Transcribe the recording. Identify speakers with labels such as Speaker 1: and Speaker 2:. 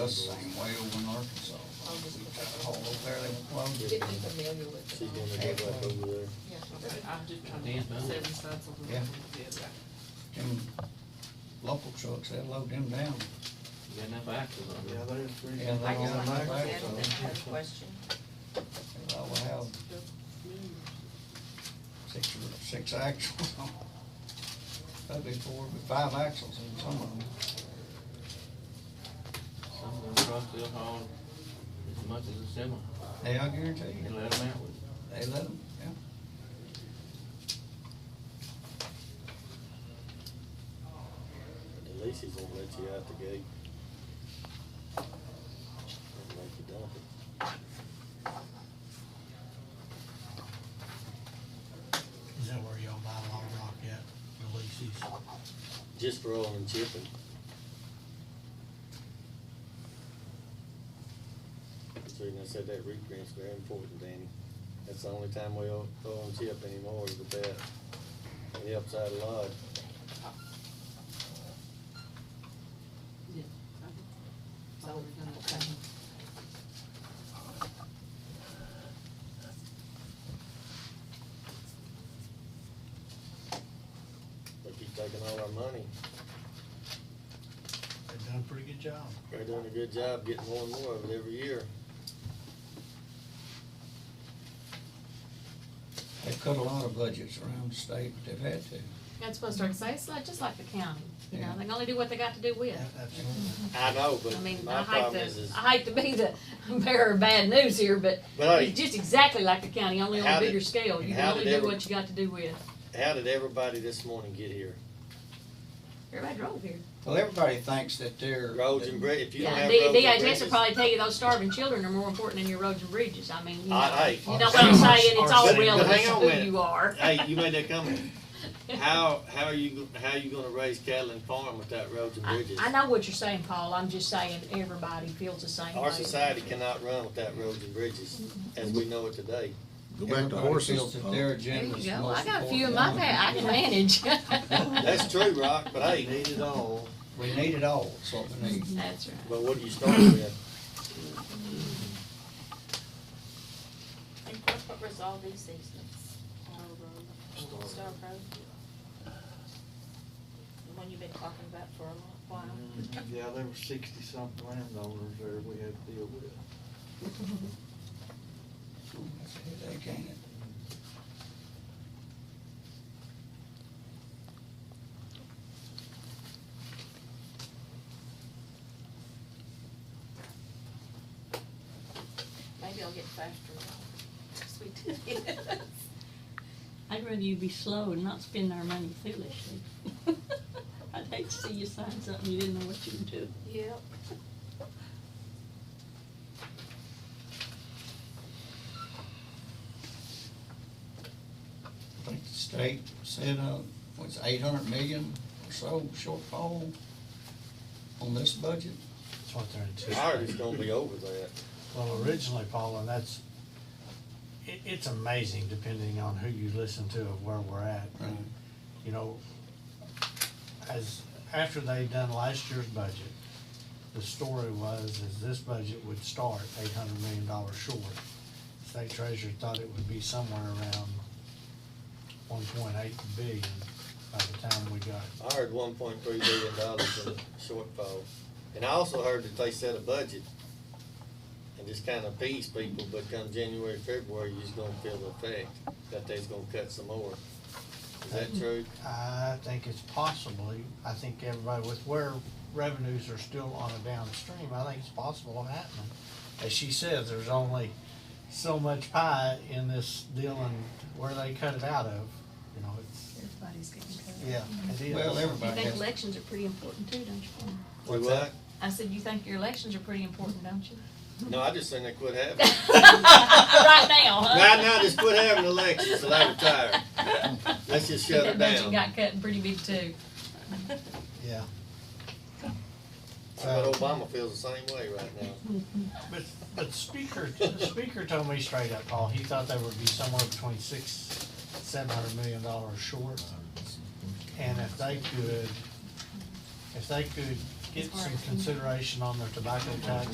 Speaker 1: The same way over in Arkansas.
Speaker 2: I'll just
Speaker 1: We
Speaker 2: put
Speaker 1: cut
Speaker 2: that
Speaker 1: a hole over there, they won't load
Speaker 2: Get
Speaker 1: it.
Speaker 2: me the manual with
Speaker 3: She's
Speaker 2: it.
Speaker 3: gonna get back over there.
Speaker 2: Yeah.
Speaker 4: I'm just trying
Speaker 5: Dan's
Speaker 4: to
Speaker 5: done.
Speaker 4: seven sides of the
Speaker 1: Yeah.
Speaker 4: yeah.
Speaker 1: Them local trucks, they load them down.
Speaker 5: You got enough axles on
Speaker 3: Yeah,
Speaker 5: there.
Speaker 3: there's three.
Speaker 1: Yeah,
Speaker 6: I
Speaker 1: they
Speaker 6: just
Speaker 1: all
Speaker 6: like
Speaker 1: have
Speaker 6: to add
Speaker 1: axles.
Speaker 6: that kind of question.
Speaker 1: They all have six, or six axles on. That'd be four, but five axles in some of them.
Speaker 5: Some of them trucks will haul as much as a semi.
Speaker 1: Hey, I guarantee
Speaker 5: You
Speaker 1: you,
Speaker 5: let them out with.
Speaker 1: they let them, yeah.
Speaker 3: At least he's gonna let you out the gate. Don't Make you dump it.
Speaker 7: Is that where y'all buy Long Rock at, releases?
Speaker 3: Just for all and chipping. So you know, said that reprint's very important, Danny. That's the only time we all go and chip anymore is with that. It helps out a lot.
Speaker 2: So we're gonna, okay.
Speaker 3: They keep taking all our money.
Speaker 7: They've done a pretty good job.
Speaker 3: They're doing a good job getting more and more of it every year.
Speaker 1: They cut a lot of budgets around the state, but they've had to.
Speaker 8: That's supposed to say, it's like, just like the county, you know,
Speaker 1: Yeah.
Speaker 8: they can only do what they got to do with.
Speaker 7: Yeah, Absolutely.
Speaker 3: I know, but
Speaker 8: I mean,
Speaker 3: my
Speaker 8: I hate
Speaker 3: problem is,
Speaker 8: to,
Speaker 3: is
Speaker 8: I hate to be the bearer of bad news here, but
Speaker 3: But hey,
Speaker 8: it's just exactly like the county, only on
Speaker 3: how
Speaker 8: a
Speaker 3: did-
Speaker 8: bigger scale, you can
Speaker 3: how
Speaker 8: only
Speaker 3: did
Speaker 8: do
Speaker 3: every-
Speaker 8: what you got to do with.
Speaker 3: how did everybody this morning get here?
Speaker 8: Everybody drove here.
Speaker 1: Well, everybody thinks that they're.
Speaker 3: Roads and bridges, if you don't
Speaker 8: Yeah,
Speaker 3: have
Speaker 8: D-
Speaker 3: roads and
Speaker 8: DHS
Speaker 3: bridges.
Speaker 8: will probably tell you those starving children are more important than your roads and bridges, I mean, you know,
Speaker 3: I- hey.
Speaker 8: you know what I'm saying, it's all
Speaker 3: But- but
Speaker 8: relative
Speaker 3: hang
Speaker 8: to
Speaker 3: on a minute.
Speaker 8: who you are.
Speaker 3: Hey, you made that comment. How, how are you, go- how you gonna raise cattle and farm without roads and
Speaker 8: I,
Speaker 3: bridges?
Speaker 8: I know what you're saying, Paul, I'm just saying, everybody feels the same way.
Speaker 3: Our society cannot run without roads and bridges, as we know it today.
Speaker 9: Go back to
Speaker 1: Everybody feels
Speaker 9: horses.
Speaker 1: that
Speaker 9: uh,
Speaker 1: their
Speaker 8: There
Speaker 1: agenda's
Speaker 8: you
Speaker 1: the
Speaker 8: go,
Speaker 1: most
Speaker 8: I got a few in my
Speaker 1: important one.
Speaker 8: pa, I can manage.
Speaker 3: That's true, Rock, but hey,
Speaker 7: Need it all.
Speaker 1: We need it all, that's what we need.
Speaker 8: That's right.
Speaker 3: but what do you start with?
Speaker 6: And corporate resolve these easements. Star Road. Star Road. The one you've been talking about for a long while.
Speaker 10: Yeah, there were sixty something landowners there we had to deal with.
Speaker 1: That's a headache, ain't it?
Speaker 6: Maybe I'll get faster. Cause we did it.
Speaker 11: I'd rather you be slow and not spend our money foolishly. I'd hate to see you sign something you didn't know what you were doing.
Speaker 6: Yep.
Speaker 1: I think the state said, uh, was eight hundred million or so shortfall on this budget.
Speaker 7: That's what they're
Speaker 3: Ours is
Speaker 7: anticipating.
Speaker 3: gonna be over that.
Speaker 7: Well, originally, Paula, that's, it, it's amazing depending on who you listen to of where we're at.
Speaker 1: Right.
Speaker 7: You know, as, after they done last year's budget, the story was, is this budget would start eight hundred million dollars short. State treasurer thought it would be somewhere around one point eight billion by the time we got
Speaker 3: I heard one point three billion dollars in shortfall. And I also heard that they set a budget and just kind of appease people, but come January, February, you're just gonna feel the effect that they's gonna cut some more. Is
Speaker 7: Mm-hmm.
Speaker 3: that true?
Speaker 7: I think it's possibly, I think everybody with where revenues are still on a downstream, I think it's possible of happening. As she says, there's only so much pie in this deal and where they cut it out of, you know, it's,
Speaker 4: Everybody's getting cut.
Speaker 7: yeah, it is.
Speaker 1: Well,
Speaker 8: You
Speaker 1: everybody
Speaker 8: think
Speaker 1: has,
Speaker 8: elections are pretty important too, don't you? Paul?
Speaker 3: We
Speaker 7: What's
Speaker 3: what?
Speaker 7: that?
Speaker 8: I said, you think your elections are pretty important, don't you?
Speaker 3: No, I just think they quit having.
Speaker 8: Right now, huh?
Speaker 3: Right now, just quit having elections till I retire. Let's just shut
Speaker 8: That
Speaker 3: it
Speaker 8: budget
Speaker 3: down.
Speaker 8: got cut pretty big too.
Speaker 7: Yeah.
Speaker 3: But Obama feels the same way right now.
Speaker 7: But, but speaker, the speaker told me straight up, Paul, he thought they would be somewhere between six, seven hundred million dollars short. And if they could, if they could get
Speaker 11: It's hard.
Speaker 7: some consideration on their tobacco tax